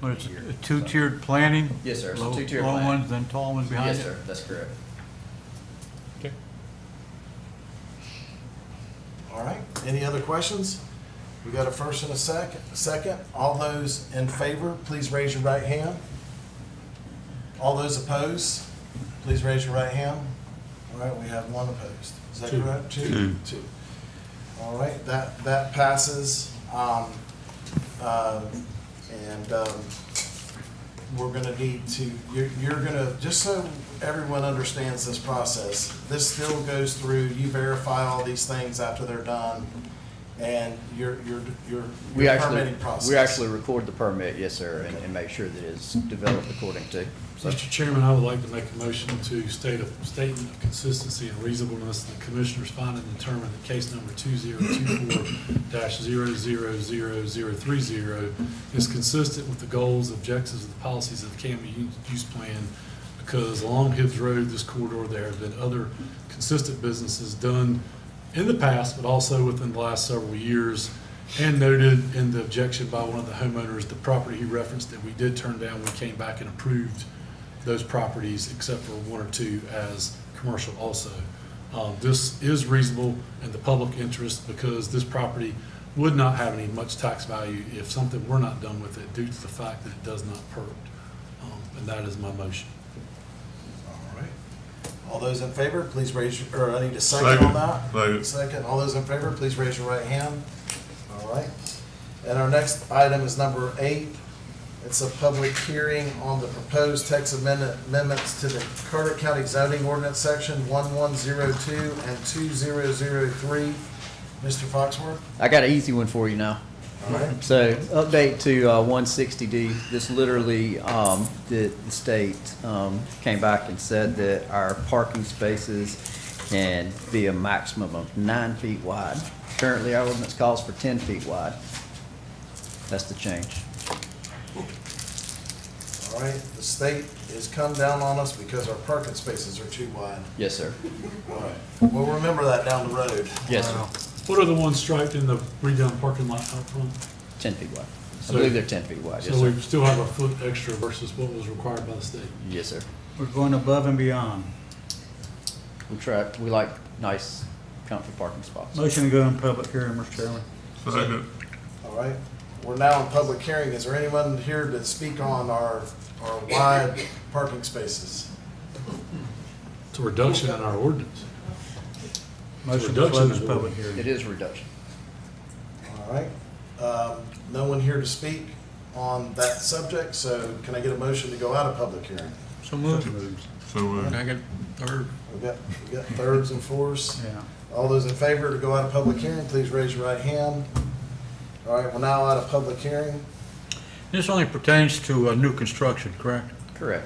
But it's here. a two-tiered planning? Yes, sir. It's a Low- two-tiered Low plan. ones, then tall ones behind it? Yes, sir, that's correct. Okay. All right, any other questions? We got a first and a second, second. All those in favor, please raise your right hand. All those opposed, please raise your right hand. All right, we have one opposed. Is that correct? Two. Two. All right, that, that passes. Um, uh, And um, we're gonna need to, you're, you're gonna, just so everyone understands this process, this still goes through, you verify all these things after they're done, and your, your, your We your actually, permitting process. we actually record the permit, yes, sir, and, and make sure that it's developed according to. So, Mr. Chairman, I would like to make a motion to state a statement of consistency and reasonableness in the commissioner's finding and determine that case number two zero two four dash zero zero zero zero three zero is consistent with the goals, objectives, and policies of the Camden Use- Use Plan because along Hibbs Road, this corridor, there have been other consistent businesses done in the past, but also within the last several years. And noted in the objection by one of the homeowners, the property he referenced that we did turn down, we came back and approved those properties except for one or two as commercial also. Um, This is reasonable in the public interest because this property would not have any much tax value if something were not done with it due to the fact that it does not perk. Um, And that is my motion. All right. All those in favor, please raise, your- or I need a second on that. Second. all those in favor, please raise your right hand. All right. And our next item is number eight. It's a public hearing on the proposed text amendment, amendments to the Carter County zoning ordinance section one-one-zero-two and two-zero-zero-three. Mr. Foxworth? I got an easy one for you now. All right. So update to uh, one sixty D, this literally, um, the, the state, um, came back and said that our parking spaces can be a maximum of nine feet wide. Currently, our ordinance calls for ten feet wide. That's the change. All right, the state has come down on us because our parking spaces are too wide. Yes, sir. All right. We'll remember that down the road. Yes, sir. What are the ones striped in the redone parking lot out front? Ten feet wide. I So- believe they're ten feet wide, yes, So sir. we still have a foot extra versus what was required by the state. Yes, sir. We're going above and beyond. We try, we like nice, comfy parking spots. Motion to go in public hearing, Mr. Chairman. Second. All right, we're now in public hearing. Is there anyone here to speak on our, our wide parking spaces? It's a reduction in our ordinance. Motion to reduction close of- public hearing. It is a reduction. All right, um, no one here to speak on that subject, so can I get a motion to go out of public hearing? So moved. So moved. Second, third. We've got, we've got thirds and fours. Yeah. All those in favor to go out of public hearing, please raise your right hand. All right, we're now out of public hearing. This only pertains to uh, new construction, correct? Correct.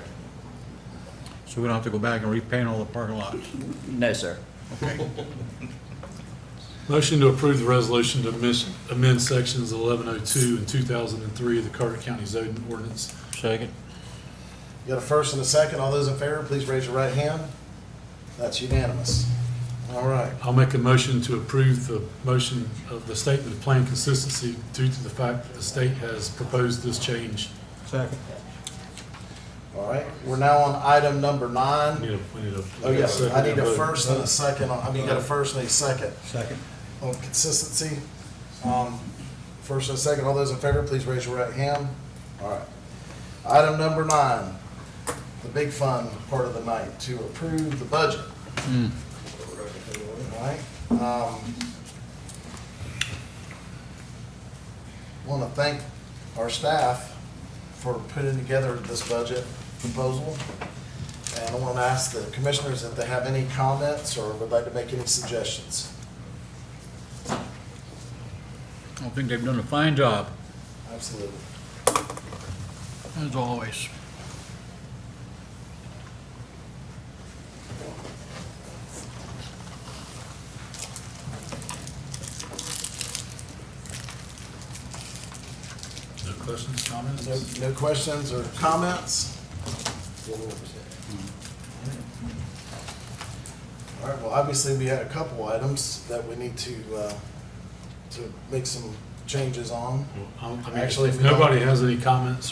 So we don't have to go back and repaint all the parking lots. No, sir. Motion to approve the resolution to amis- amend sections 1102 and 2003 of the Carter County zoning ordinance. Second. You got a first and a second. All those in favor, please raise your right hand. That's unanimous. All right. I'll make a motion to approve the motion of the statement of plan consistency due to the fact that the state has proposed this change. Second. All right, we're now on item number We nine. need a, we need a. Oh, yes, I need a vote. first and a second, on- I mean, you got a first and a second Second. on consistency. Um, First and a second, all those in favor, please raise your right hand. All right. Item number nine, the big fun part of the night, to approve the budget. All right. Um, Want to thank our staff for putting together this budget proposal. And I want to ask the commissioners if they have any comments or would like to make any suggestions. I think they've done a fine job, Absolutely. as always. No questions, comments? No, no questions or comments? All right, well, obviously, we had a couple items that we need to, uh, to make some changes on. Well, I- I mean, Actually, if if we don't- nobody has any comments